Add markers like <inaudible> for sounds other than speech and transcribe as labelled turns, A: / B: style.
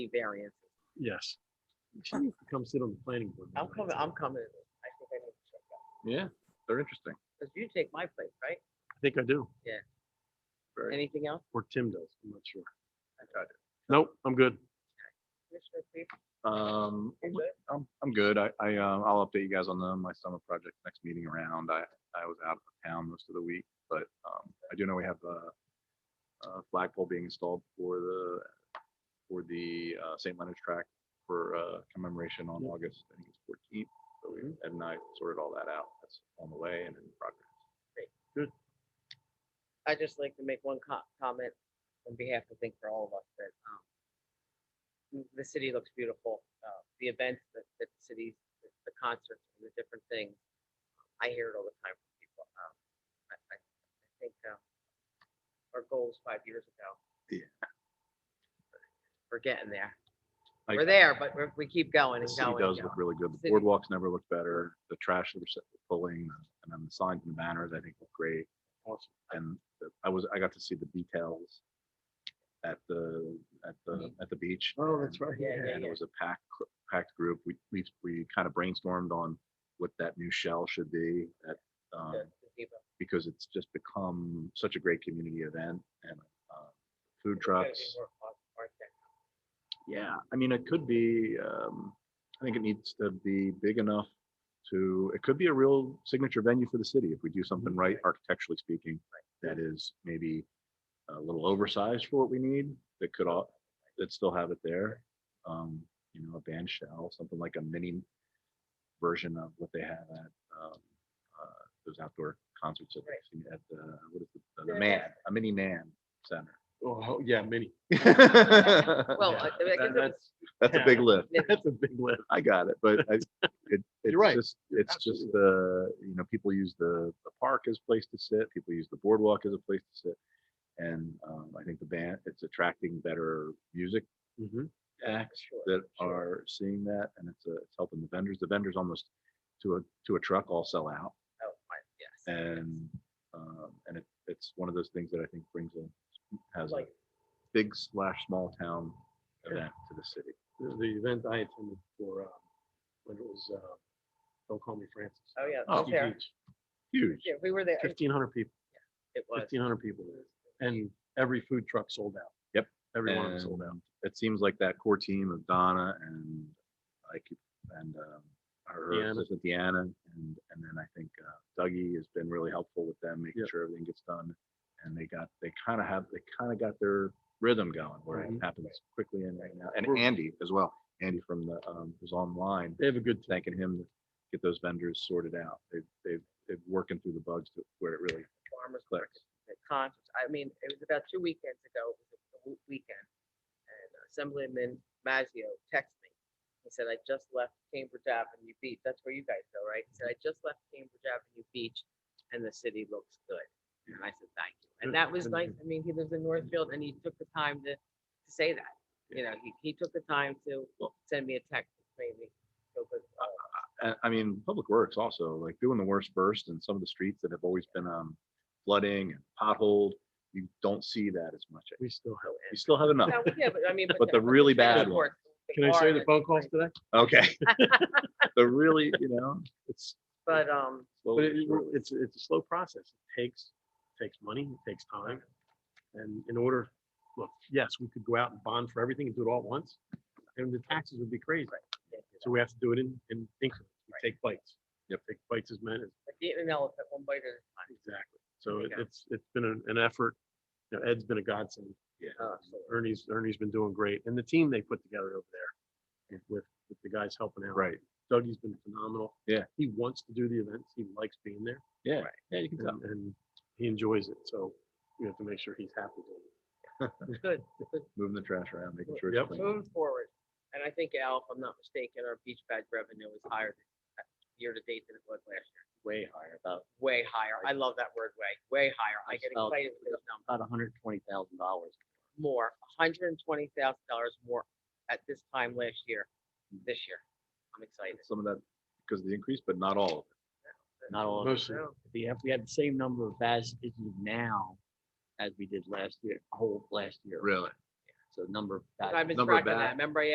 A: variance.
B: Yes. Come sit on the planning board.
A: I'm coming, I'm coming. I think I need to check out.
C: Yeah, they're interesting.
A: Because you take my place, right?
B: I think I do,
C: Very-
A: Anything else?
B: or Tim does, I'm not sure.
C: I got it.
B: Nope, I'm good.
A: Commissioner Priest,
C: Um,
A: you good?
C: I'm, I'm good. I, I, um, I'll update you guys on the, my summer project next meeting around. I, I was out of town most of the week, but, um, I do know we have a, a flagpole being installed for the, for the, uh, St. Leonard's track for, uh, commemoration on
B: Yep.
C: August, I think it's fourteenth. So we, Ed and I sorted all that out. That's on the way and in progress.
A: I'd just like to make one co- comment on behalf, I think, for all of us that, um, m- the city looks beautiful. Uh, the events that, that the cities, the- the concerts and the different things. I hear it all the time from people. Um, I, I, I think, um, our goals five years ago.
C: Yeah.
A: We're getting there.
C: I-
A: We're there, but we're, we keep going and
C: The city
A: going. and
C: does
A: going.
C: look really good.
A: The
C: The
A: city-
C: boardwalks never looked better. The trash that was pulling and then the signs and the banners, I think look great.
B: Awesome.
C: And the- I was, I got to see the details at the, at the,
A: Mm-hmm.
C: at the beach.
B: Oh, that's
C: and-
B: right.
A: Yeah, yeah,
C: And it was a packed, cr- packed group. We, we, we kind of brainstormed on what that new shell should be at, um,
A: the- the people.
C: because it's just become such a great community event and, uh, food
A: It's gotta be
C: trucks.
A: more cost- architect-
C: Yeah, I mean, it could be, um, I think it needs to be big enough to, it could be a real signature venue for the city if we do something right architecturally speaking. That is maybe a little oversized for what we need, that could all, that still have it there. Um, you know, a band shell, something like a mini version of what they have at, um, uh, those outdoor concerts that they've seen at the, what is it, the- the man, a mini man center.
B: Oh, yeah, many.
A: Well,
B: Yeah,
A: I I mean, I guess it
B: that-
A: was-
B: That's
C: <laughs> That's a big <laughs> lift.
B: that's a big lift.
C: I got it, but I,
A: <laughs>
C: it, it's
B: right.
C: just, it's just the, you know, people use the, the park as a place to sit, people use the boardwalk as a place to sit. And, um, I think the band, it's attracting better music
B: Mhm.
C: acts
A: Sure,
C: that
A: sure.
C: are seeing that and it's, uh, it's helping the vendors. The vendors almost to a, to a truck all sell out.
A: Oh, my, yes.
C: And, um, and it, it's one of those things that I think brings a, has a
A: Like,
C: big slash small town
B: Sure.
C: event to the city.
B: The the event I attended for, um, when it was, uh, Don't Call Me Francis.
A: oh, yeah.
C: Oh,
A: it's there.
C: Huge.
A: Yeah, we were there. It
B: Fifteen hundred people,
A: it was.
B: fifteen hundred people there, and every food truck sold out.
C: Yep.
B: Every one of them sold out.
C: And it seems like that core team of Donna and I keep, and um, her
B: Deanna.
C: assistant Deanna, and, and then I think uh, Dougie has been really helpful with them, making
B: Yep.
C: sure everything gets done. And they got, they kind of have, they kind of got their rhythm going where it
B: Mhm.
C: happens quickly and right now. And
B: We're-
C: Andy as well, Andy from the, um, who's online,
B: They have a good tank.
C: thanking him to get those vendors sorted out. They've, they've, they've working through the bugs to where it really
A: farmers
C: clicks.
A: the concerts. I mean, it was about two weekends ago, it was a w- weekend, and Assemblyman Maggio texted me. He said, I just left Cambridge Avenue Beach. That's where you guys go, right? He said, I just left Cambridge Avenue Beach and the city looks good. And I said, thank you. And
B: Good,
A: that was
B: good,
A: nice. I mean, he lives in Northfield and he took the time to, to say that. You know, he, he took the time to send me a text, maybe. So
C: <laughs>
A: good. uh,
C: I, I mean, Public Works also, like doing the worst first and some of the streets that have always been, um, flooding and potholed, you don't see that as much.
B: We still have.
C: You still have enough.
A: now, Yeah, but I mean.
C: But the really
A: trailer
C: bad
A: courts, they
B: Can I say
A: are
B: the
A: in
B: phone calls
A: spring,
B: today?
C: Okay. <laughs> The really, you know, it's
A: But, um,
B: But
C: slowly,
B: it, it-
C: surely.
B: it's, it's a slow process. It takes, takes money, it takes time. And in order, look, yes, we could go out and bond for everything and do it all at once, and the taxes would be crazy.
A: yeah,
B: So we have to do it in, in increments. We take bites.
C: Yep.
B: Take bites as many. as-
A: like eating an elephant one bite at a time.
B: Exactly. So it-
A: Okay.
B: it's, it's been an, an effort. You know, Ed's been a godsend.
A: Uh,
B: Ernie's, Ernie's been doing great. And the team they put together over there with- with, with the guys helping out.
C: right.
B: Dougie's been phenomenal.
C: Yeah.
B: He wants to do the events. He likes being there.
C: Yeah.
A: Right.
C: Yeah, you can tell.
B: and, and he enjoys it. So we have to make sure he's happy doing
A: Good,
C: Moving the trash around, making sure.
B: Yep.
C: it's clean.
A: moving forward. And I think Al, if I'm not mistaken, our beach bag revenue is higher than- year to date than it was last year.
D: way higher, about,
A: Way higher. I love that word, way, way higher. I get
D: Spelled-
A: excited with those numbers.
D: about hundred and twenty thousand dollars.
A: More, hundred and twenty thousand dollars more at this time last year, this year. I'm excited.
C: Some of that because of the increase, but not all.
D: Not all,
B: it.
D: of it.
B: Mostly,
A: So,
D: we have, we had the same number of as is now as we did last year, whole last year.
C: Really?
E: so number of.
A: I've
E: guys.
A: been
D: Number
A: tracking
D: back.
A: that. Remember I